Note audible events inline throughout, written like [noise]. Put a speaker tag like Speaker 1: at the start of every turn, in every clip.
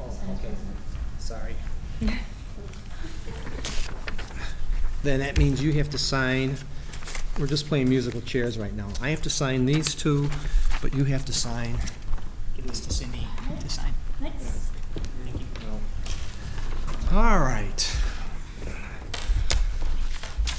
Speaker 1: Oh, okay, sorry. [laughs] Then that means you have to sign, we're just playing musical chairs right now. I have to sign these two, but you have to sign.
Speaker 2: Give this to Cindy to sign.
Speaker 3: Nice.
Speaker 2: Thank you.
Speaker 1: All right.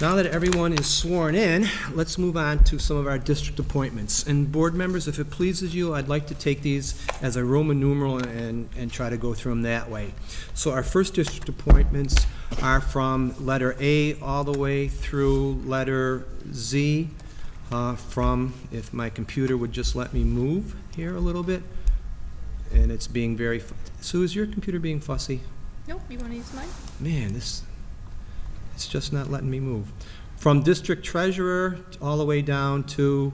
Speaker 1: Now that everyone is sworn in, let's move on to some of our district appointments. And board members, if it pleases you, I'd like to take these as a Roman numeral and, and try to go through them that way. So our first district appointments are from letter A all the way through letter Z, uh, from, if my computer would just let me move here a little bit, and it's being very, fu- Sue, is your computer being fussy?
Speaker 4: Nope, you want to use mine?
Speaker 1: man, this, it's just not letting me move. From district treasurer all the way down to,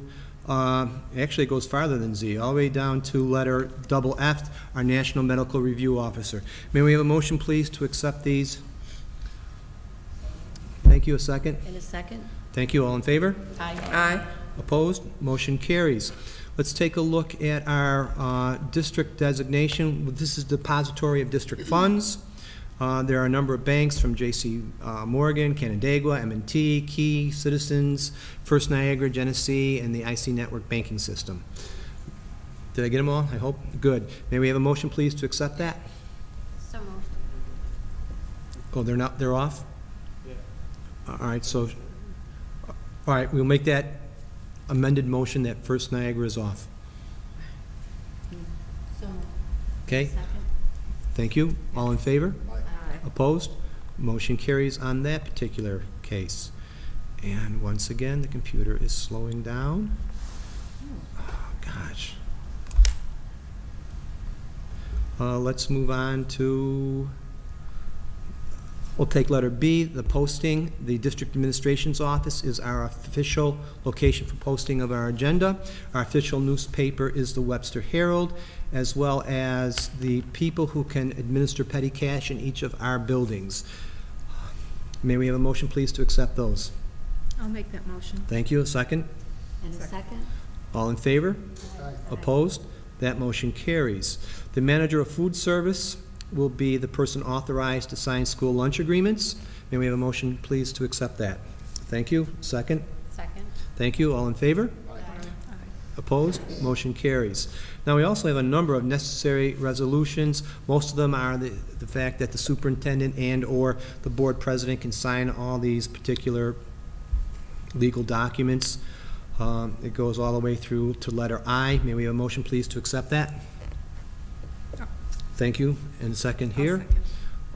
Speaker 1: uh, actually it goes farther than Z, all the way down to letter double F, our national medical review officer. May we have a motion, please, to accept these? Thank you, a second.
Speaker 3: In a second?
Speaker 1: Thank you, all in favor?
Speaker 3: Aye.
Speaker 1: Opposed? Motion carries. Let's take a look at our uh, district designation. This is depository of district funds. Uh, There are a number of banks from J.C. uh, Morgan, Canandaigua, m and t Key, Citizens, First Niagara, Genesee, and the IC Network Banking System. Did I get them all? I hope. Good. May we have a motion, please, to accept that?
Speaker 3: So moved.
Speaker 1: Oh, they're not, they're off? Yeah. All right, so, all right, we'll make that amended motion that First Niagara is off.
Speaker 3: So moved.
Speaker 1: Okay,
Speaker 3: Second?
Speaker 1: thank you. All in favor?
Speaker 3: Aye.
Speaker 1: Opposed? Motion carries on that particular case. And once again, the computer is slowing down. Oh, Gosh. Uh, Let's move on to, we'll take letter B, the posting. The district administration's office is our official location for posting of our agenda. Our official newspaper is the Webster Herald, as well as the people who can administer petty cash in each of our buildings. May we have a motion, please, to accept those?
Speaker 4: I'll make that motion.
Speaker 1: Thank you. A second?
Speaker 3: In a second?
Speaker 1: All in favor? Opposed? That motion carries. The manager of food service will be the person authorized to sign school lunch agreements. May we have a motion, please, to accept that? Thank you. Second?
Speaker 3: Second?
Speaker 1: Thank you. All in favor? Opposed? Motion carries. Now, we also have a number of necessary resolutions. Most of them are the, the fact that the superintendent and/or the board president can sign all these particular legal documents. Um, It goes all the way through to letter I. May we have a motion, please, to accept that? Thank you. And second here.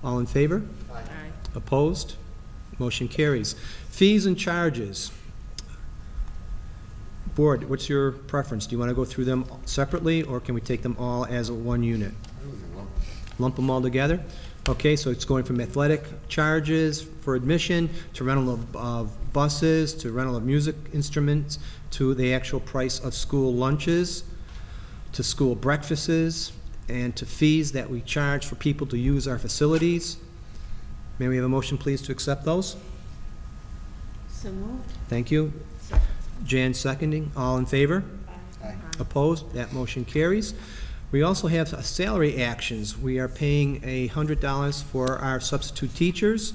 Speaker 1: All in favor?
Speaker 3: Aye.
Speaker 1: Opposed? Motion carries. Fees and charges. Board, what's your preference? Do you want to go through them separately, or can we take them all as a one unit? Lump them all together? Okay, so it's going from athletic charges for admission, to rental of, of buses, to rental of music instruments, to the actual price of school lunches to school breakfasts, and to fees that we charge for people to use our facilities. May we have a motion, please, to accept those?
Speaker 3: So moved?
Speaker 1: Thank you. Jan seconding, all in favor? Opposed? That motion carries. We also have uh, salary actions. We are paying a hundred dollars for our substitute teachers.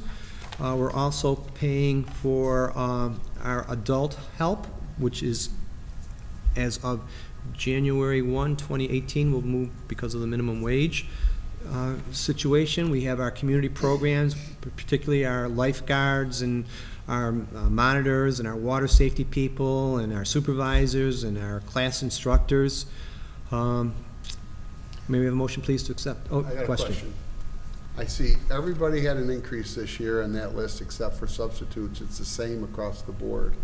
Speaker 1: Uh, we're also paying for, um, our adult help, which is as of January 1, 2018, will move because of the minimum wage uh, situation. We have our community programs, particularly our lifeguards and our uh, monitors and our water safety people and our supervisors and our class instructors. Um, May we have a motion, please, to accept? Oh,
Speaker 5: I got a question. I see everybody had an increase this year on that list except for substitutes. It's the same across the board.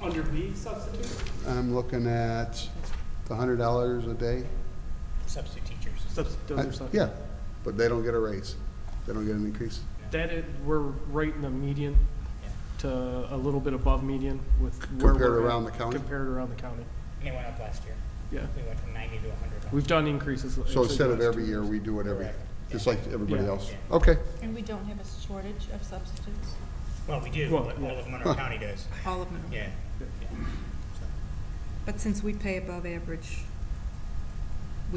Speaker 6: Under B substitute?
Speaker 5: I'm looking at the hundred dollars a day.
Speaker 2: Substitute teachers.
Speaker 6: Substitute,
Speaker 5: Uh, Yeah, but they don't get a raise. They don't get an increase.
Speaker 6: That is, we're right in the median to a little bit above median with where
Speaker 5: Compared
Speaker 6: we're at-
Speaker 5: around the county?
Speaker 6: Compared around the county,
Speaker 2: And it went up last year.
Speaker 6: yeah.
Speaker 2: We went from ninety to hundred.
Speaker 6: We've done increases.
Speaker 5: So
Speaker 6: actually
Speaker 5: instead of
Speaker 6: last
Speaker 5: every
Speaker 6: two
Speaker 5: year, we do it every,
Speaker 2: Correct.
Speaker 5: just like everybody
Speaker 6: Yeah.
Speaker 5: else. Okay,
Speaker 7: And we don't have a shortage of substitutes?
Speaker 2: Well, we do,
Speaker 6: Well,
Speaker 2: but
Speaker 6: yeah.
Speaker 2: all of
Speaker 6: [laughs]
Speaker 2: Monroe County does,
Speaker 7: All of them?
Speaker 2: yeah.
Speaker 7: But since we pay above average